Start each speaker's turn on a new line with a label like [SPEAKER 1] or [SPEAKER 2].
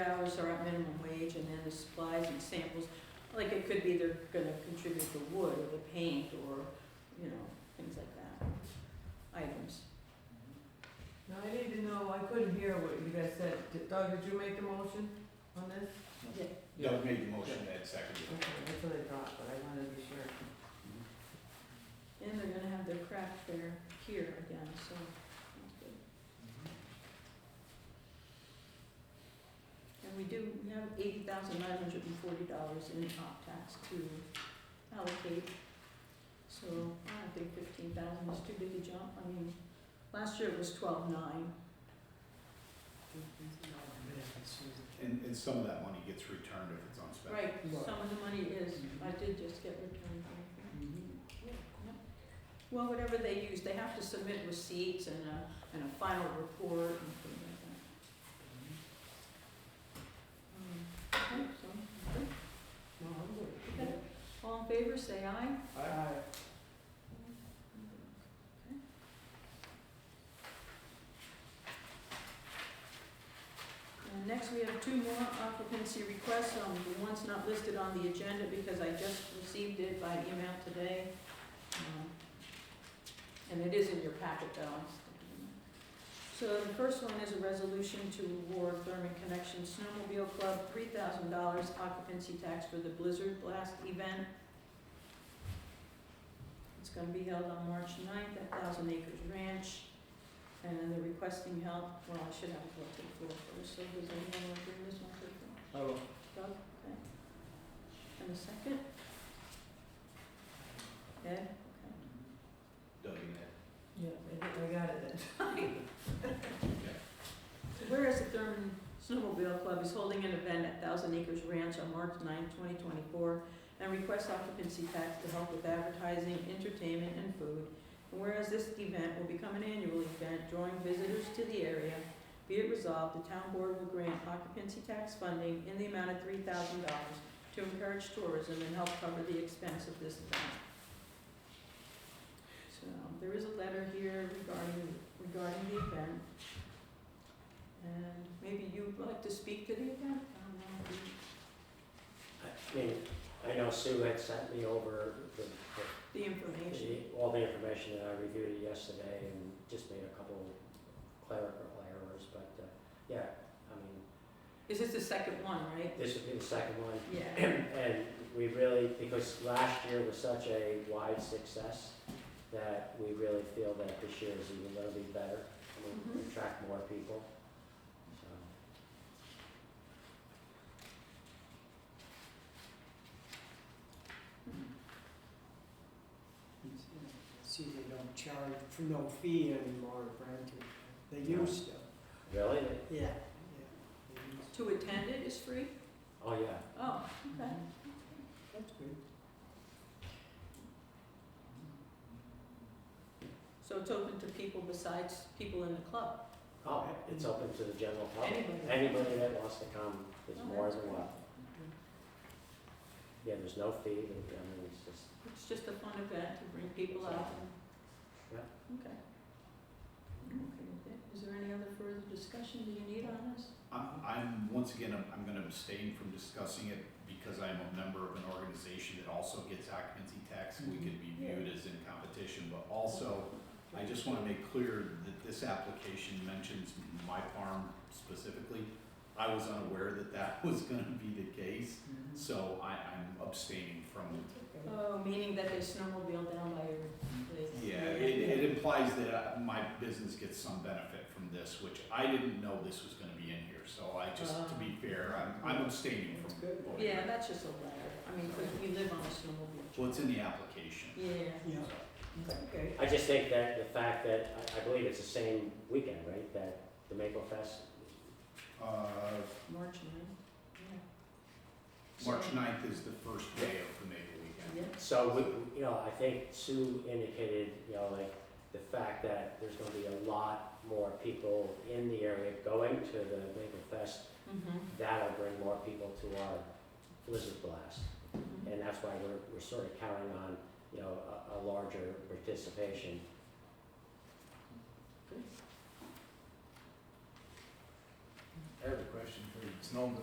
[SPEAKER 1] hours are at minimum wage, and then the supplies and samples, like it could be they're gonna contribute the wood or the paint or, you know, things like that, items.
[SPEAKER 2] Now, I need to know, I couldn't hear what you guys said. Did- Doug, did you make the motion on this?
[SPEAKER 3] Doug made the motion, Ed seconded it.
[SPEAKER 2] Okay, that's what I thought, but I wanted to be sure.
[SPEAKER 1] And they're gonna have their craft fair here again, so that's good. And we do, we have eighty thousand nine hundred and forty dollars in op tax to allocate. So I don't think fifteen thousand is too big a jump. I mean, last year it was twelve nine.
[SPEAKER 3] And, and some of that money gets returned if it's unspent.
[SPEAKER 1] Right, some of the money is, I did just get returned money.
[SPEAKER 3] Mm-hmm.
[SPEAKER 1] Well, whatever they use, they have to submit receipts and a, and a final report and things like that. Um, okay, so, okay.
[SPEAKER 2] No, I'm
[SPEAKER 1] Okay.
[SPEAKER 2] good.
[SPEAKER 1] All in favor, say aye.
[SPEAKER 2] Aye.
[SPEAKER 1] And next, we have two more occupancy requests, um, the one's not listed on the agenda because I just received it by email today. Um, And it is in your packet though. I'm just- So the first one is a resolution to award Thurman Connection Snowmobile Club three thousand dollars occupancy tax for the Blizzard Blast event it's gonna be held on March 9th at Thousand Acres Ranch. And then they're requesting help, well, I should have a vote to the floor first, so does anyone want to bring this one to the floor?
[SPEAKER 2] I will.
[SPEAKER 1] Doug, okay. And a second? Ed, okay.
[SPEAKER 3] Doug and
[SPEAKER 2] Yeah, I think I got it then.
[SPEAKER 1] Whereas the Thurman Snowmobile Club is holding an event at Thousand Acres Ranch on March 9th, twenty twenty-four, and requests occupancy tax to help with advertising, entertainment, and food. And whereas this event will become an annual event drawing visitors to the area, be it resolved, the town board will grant occupancy tax funding in the amount of three thousand dollars to encourage tourism and help cover the expense of this event. So, there is a letter here regarding, regarding the event. And maybe you'd like to speak to the event? I don't know if you-
[SPEAKER 4] I mean, I know Sue had sent me over the,
[SPEAKER 1] The
[SPEAKER 4] the-
[SPEAKER 1] information.
[SPEAKER 4] the, all the information that I reviewed yesterday and just made a couple clerical errors, but, uh, yeah, I mean,
[SPEAKER 1] Is this the second one, right?
[SPEAKER 4] this would be the second one.
[SPEAKER 1] Yeah.
[SPEAKER 4] And we really, because last year was such a wide success, that we really feel that this year is even gonna be better. I mean,
[SPEAKER 1] Mhm.
[SPEAKER 4] attract more people, so.
[SPEAKER 2] See, they don't charge for no fee anymore, granted. They
[SPEAKER 4] used
[SPEAKER 2] to.
[SPEAKER 4] Really?
[SPEAKER 2] Yeah, yeah.
[SPEAKER 1] To attend it is free?
[SPEAKER 4] Oh, yeah.
[SPEAKER 1] Oh, okay.
[SPEAKER 2] Mm-hmm. That's good.
[SPEAKER 1] So it's open to people besides people in the club?
[SPEAKER 4] Oh, it's open to the general public.
[SPEAKER 1] Anybody?
[SPEAKER 4] Anybody that wants to come is
[SPEAKER 1] Oh,
[SPEAKER 4] more
[SPEAKER 1] that's
[SPEAKER 4] than
[SPEAKER 1] great.
[SPEAKER 4] welcome. Yeah, there's no fee, there- I mean, it's just,
[SPEAKER 1] It's just a fun event to bring people out and... Okay. I'm okay with it. Is there any other further discussion that you need on this?
[SPEAKER 3] I'm, I'm, once again, I'm, I'm gonna abstain from discussing it because I'm a member of an organization that also gets occupancy tax. We could be viewed as in competition, but also, I just wanna make clear that this application mentions my farm specifically. I was unaware that that was gonna be the case, so I, I'm abstaining from
[SPEAKER 1] Oh, meaning that they snowmobile down by your place?
[SPEAKER 3] Yeah, it, it implies that uh, my business gets some benefit from this, which I didn't know this was gonna be in here, so I just, to be fair, I'm, I'm abstaining from
[SPEAKER 2] Uh-huh. good.
[SPEAKER 3] voting.
[SPEAKER 1] Yeah, that's just a letter. I mean, 'cause we live on a snowmobile
[SPEAKER 3] Well,
[SPEAKER 1] trail.
[SPEAKER 3] it's in the application.
[SPEAKER 1] Yeah.
[SPEAKER 2] Yeah, okay.
[SPEAKER 4] I just think that the fact that, I, I believe it's the same weekend, right, that the Maple Fest?
[SPEAKER 3] Uh,
[SPEAKER 1] March ninth, yeah.
[SPEAKER 3] March
[SPEAKER 1] So-
[SPEAKER 3] ninth is the first day of the Maple Weekend.
[SPEAKER 1] Yeah,
[SPEAKER 4] So, we, you know, I think Sue indicated, you know, like, the fact that there's gonna be a lot more people in the area going to the Maple Fest,
[SPEAKER 1] mhm,
[SPEAKER 4] that'll bring more people to our Blizzard Blast.
[SPEAKER 1] mhm.
[SPEAKER 4] And that's why we're, we're sort of counting on, you know, a, a larger participation.
[SPEAKER 3] I have a question for you, it's known that